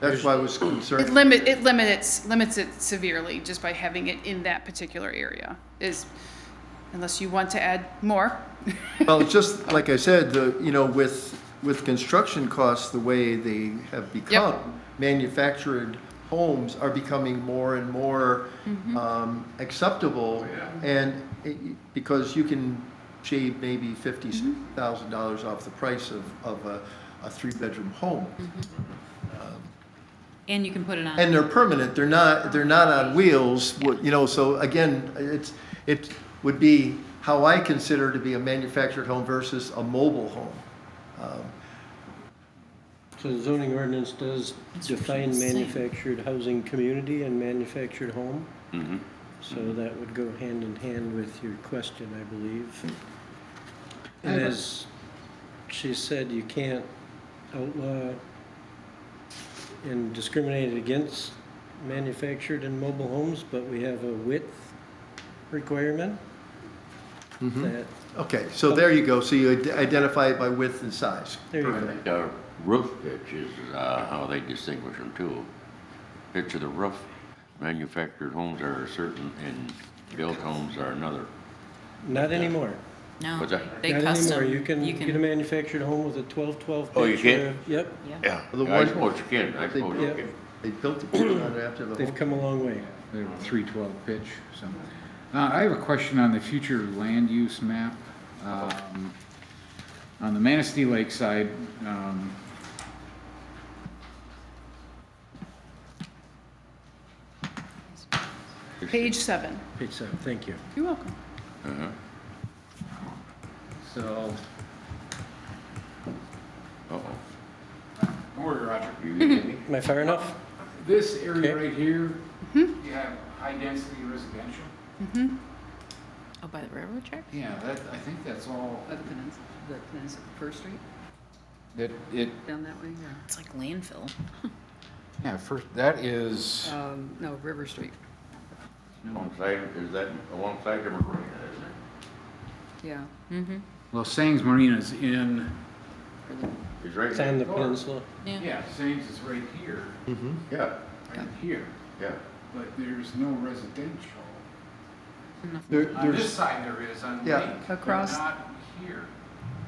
That's why I was It concerned. limit, it limits, limits it severely just by having it in that particular area is, unless you want to add more. Well, it's just, like I said, the, you know, with, with construction costs the way they have become, manufactured homes are becoming more and more um, acceptable. And it- because you can shave maybe fifty thousand dollars off the price of, of a, a three-bedroom home. And you can put it on. And they're permanent, they're not, they're not on wheels, what- you know, so again, it's, it would be how I consider to be a manufactured home versus a mobile home. So the zoning ordinance does define manufactured housing community and manufactured home? So that would go hand in hand with your question, I believe. And as she said, you can't outlaw and discriminate against manufactured and mobile homes, but we have a width requirement that, Okay, so there you go, so you id- identify it by width and size. there you go. Perfect. Uh, Roof pitch is uh, how they distinguish them too. Pitch of the roof, manufactured homes are a certain and built homes are another. Not anymore. No, What's that? they Not custom. anymore. You can get a manufactured home with a twelve-twelve pitch. Oh, you or a- can't? Yep. yeah. Yeah. The I one- suppose you can, I suppose you Yeah. can. They built the building on it after the They've home. come a long way. They were three twelve pitch, so. Uh, I have a question on the future land use map. Um, On the Manistee Lake side, um, Page seven. Page seven, thank you. You're welcome. Uh-huh. so, Uh-oh. Morgan, Roger. You kidding me? Am I far enough? This Okay. area right here, Mm-hmm. you have high-density residential. Oh, by the railroad track? Yeah, that, I think that's all, By the peninsula, the peninsula, First Street, that it, down that way, yeah. It's like landfill. yeah, first, that is, Um, no, River Street, Alongside, is that alongside the marina, isn't yeah. well, Sangs Marina's in, or the- it? It's right. It's on the next door. peninsula. yeah, Sangs is right here, Yeah, right here, yeah. but there's no residential. There- On this There's, side there is, on Yeah. Lake, but Across- not here.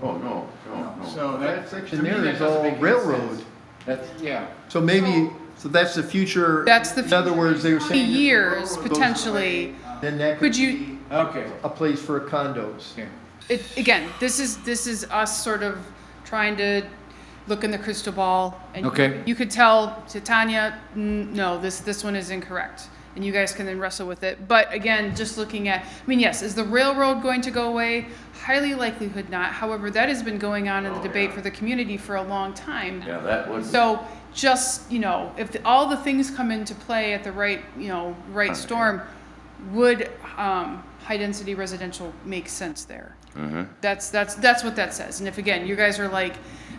Oh, no, no, no. So that and section there is all railroad. That's, yeah. So maybe, so that's the future. That's the In other future. words, they were Twenty saying. if the years railroad goes potentially, away, Then that could could you, be Okay. a place for condos. Okay. it, again, this is, this is us sort of trying to look in the crystal ball. and Okay. You could tell to Tanya, "Mm, no, this, this one is incorrect. And you guys can then wrestle with it. But again, just looking at, I mean, yes, is the railroad going to go away? Highly likelihood not. However, that has been going on in the Oh, debate yeah. for the community for a long time. Yeah, that would. So just, you know, if the- all the things come into play at the right, you know, right storm, would um, high-density residential make sense there? Uh-huh. That's, that's, that's what that says. And if, again, you guys are like,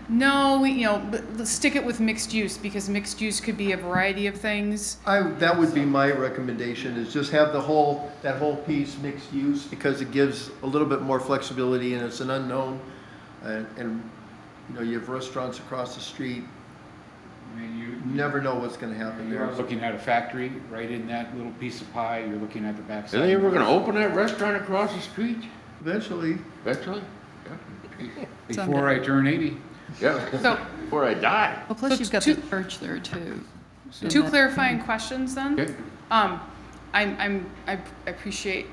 no, we- you know, l- l- stick it with mixed use because mixed use could be a variety of things. I, that would be my recommendation, is just have the whole, that whole piece mixed use, because it gives a little bit more flexibility, and it's an unknown. And, and, you know, you have restaurants across the street, I mean, you, you never know what's gonna happen You're there. looking at a factory right in that little piece of pie, you're looking at the backside. Are they ever gonna open that restaurant across the street Eventually, eventually? Before I turn eighty. Yeah, So before I die. Well, plus So you've got two- Mm-hmm. the church there too. So two that- clarifying questions then. Okay. Um, I'm, I'm, I appreciate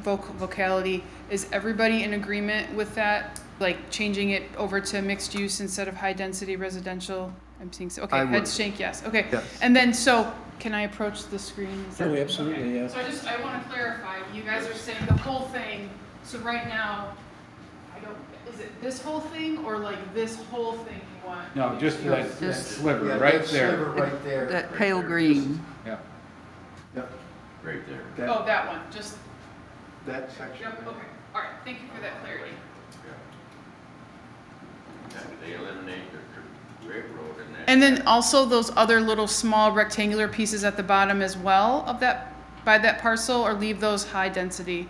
voc- vocality. Is everybody in agreement with that? Like changing it over to mixed use instead of high density residential? I'm seeing, so, I okay, would. heads shake, yes, okay. Yes. And then, so, can I approach the screen? Is that- Oh, absolutely, yeah. So I just, I wanna clarify, you guys are saying the whole thing, so right now, I don't, is it this whole thing or like this whole thing you want? No, just that that Just- sliver Yeah, right that sliver there. Right there. That pale green, Yeah. Yep, Right there. Oh, that, that one, just, that section. yep, okay, all right, thank you for that clarity. They eliminate the railroad and that. And then also those other little small rectangular pieces at the bottom as well of that, by that parcel, or leave those high density?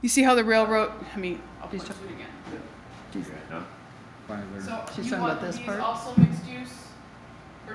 You see how the railroad, I mean, I'll point to it again. Yeah, no? By there. So She's you talking about want this these part? also mixed use?